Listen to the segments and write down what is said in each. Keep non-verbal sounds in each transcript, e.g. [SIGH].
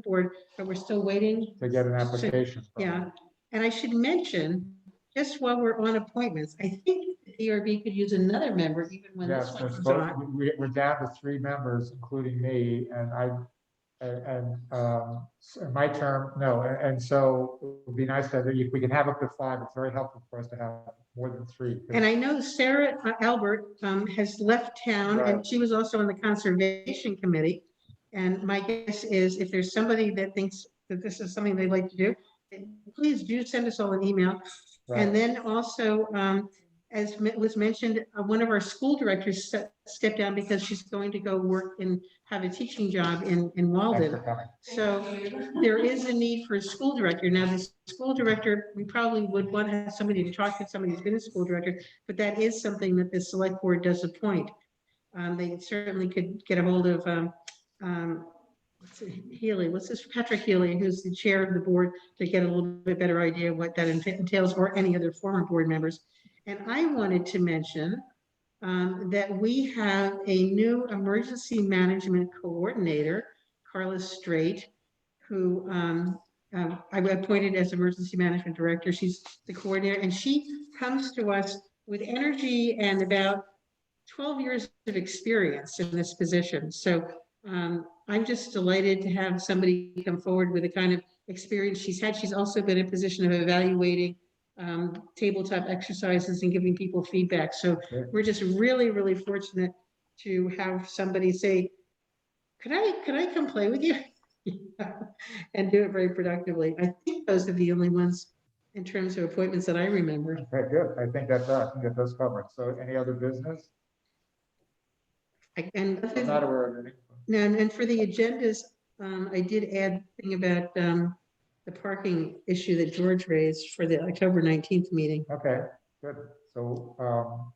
board, but we're still waiting. to get an So- application. from Yeah, them. and I should mention, just while we're on appointments, I think the DRB could use another member even when this Yes, one there's comes both, on. we, we're down to three members, including me, and I, and, and, um, so my term, no, and, and so it would be nice that if we can have up to five, it's very helpful for us to have more than three. 'cause And I know Sarah uh, Albert um, has left town and Right. she was also on the Conservation Committee. And my guess is if there's somebody that thinks that this is something they'd like to do, please do send us all an email. right, And then also, um, as me- was mentioned, uh, one of our school directors se- stepped down because she's going to go work and have a teaching job in, in thanks for Walden. coming. So there is a need for a school director. Now, the school director, we probably would want to have somebody to talk to, somebody who's been a school director, but that is something that the select board does appoint. Um, they certainly could get a hold of, um, um, what's it, Healy, what's this, Patrick Healy, who's the chair of the board, to get a little bit better idea of what that entails, or any other former board members. And I wanted to mention, um, that we have a new emergency management coordinator, Carla Straight, who um, um, I appointed as emergency management director. She's the coordinator, and she comes to us with energy and about 12 years of experience in this position. So um, I'm just delighted to have somebody come forward with the kind of experience she's had. She's also been in a position of evaluating um, tabletop exercises and giving people feedback. So Sure. we're just really, really fortunate to have somebody say, could I, could I come play with you? [LAUGHS] And do it very productively. I think those are the only ones in terms of appointments that I remember. Okay, good, I think that's, I think that does cover it, so any other business? I- And I'm Not aware of any. No, And, and for the agendas, um, I did add thing about, um, the parking issue that George raised for the October nineteenth meeting. Okay, good, so, um,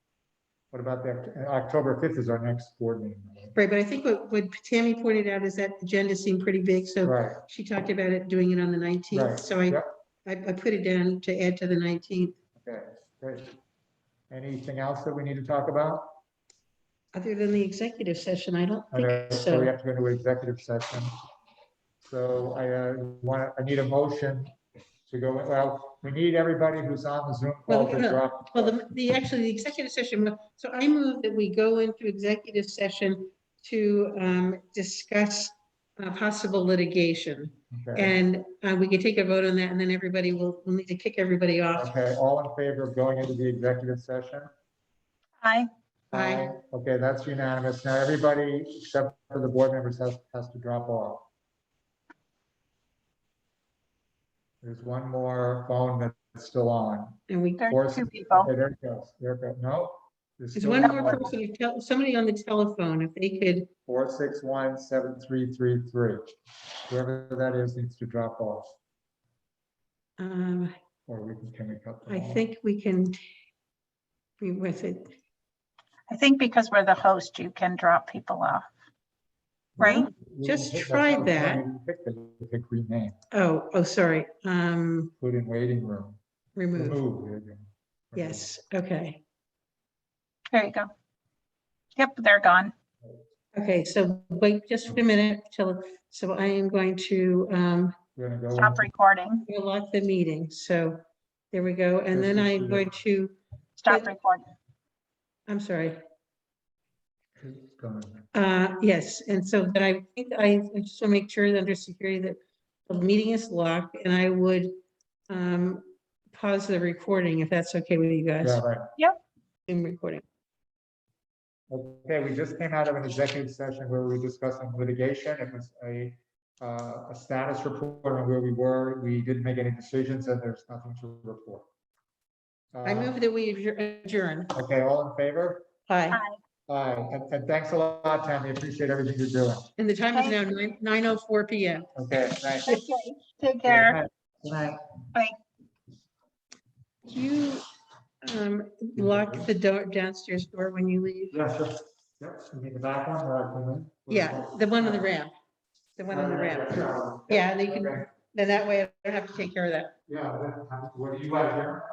what about that, October fifth is our next board meeting. Right, but I think what, what Tammy pointed out is that agenda seemed pretty big, so Right, she talked about it, doing it on the nineteenth, Right, so I, yep. I, I put it down to add to the nineteenth. okay, great. Anything else that we need to talk about? Other than the executive session, I don't think Okay, So we so. have to go into executive session. So I uh, want, I need a motion to go, well, we need everybody who's on the Zoom call Well, to no, drop. Well, the, the, actually, the executive session, so I move that we go into executive session to, um, discuss, uh, possible litigation. Okay, And uh, we can take a vote on that, and then everybody will, we'll need to kick everybody off. Okay, all in favor of going into the executive session? Aye. Aye. Okay, that's unanimous. Now, everybody except for the board members has, has to drop off. There's one more phone that's still on. And we, There are Forces- two people. Okay, there it goes, there it goes. No. there's one more person, who tel- somebody on the telephone, if they could, four six one seven three three three. Whoever that is needs to drop off, um, or we can, can we cut? them I off? think we can be with it. I think because we're the host, you can drop people off. Right? We Just can pick- try that's what I'm saying, that. we can Pick the, pick rename, Oh, oh, sorry, um, put in waiting room. remove. Remove, there you go. Yes, okay. There you go. Yep, they're gone. Okay, so wait just a minute till, so I am going to um, We're gonna go. Stop into- recording. lock the meeting, so there we go. And then I'm going to, Stop recording. I'm sorry. it's gone. Uh, yes, and so that I think I I just want to make sure that under security that the meeting is locked and I would um, pause the recording if that's okay with you guys. Yeah, right. Zoom recording. Okay, we just came out of an executive session where we were discussing litigation. It was a, uh, a status report on where we were. We didn't make any decisions and there's nothing to report. I Uh, move that we adjour- adjourn. Okay, all in favor? Aye. Aye, and, and thanks a lot, Tammy. Appreciate everything you're doing. And the time is now nine, nine oh four PM. Okay, thanks. Okay, Take care. Good night. Do you um, lock the door downstairs door when you leave? Yeah, sure. Yep, you need the back one or I can- Yeah, the one on the ramp. The one on the ramp. Yeah, and you can, Okay. then that way I don't have to take care of that. Yeah, that- what do you like here?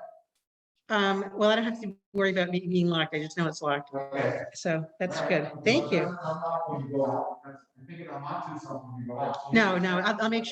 Um, well, I don't have to worry about me being locked. I just know it's locked. Okay. So that's good. Thank you. I'm not going to go out. I'm thinking I'm onto something. when you go out. No, no, I'll, I'll make sure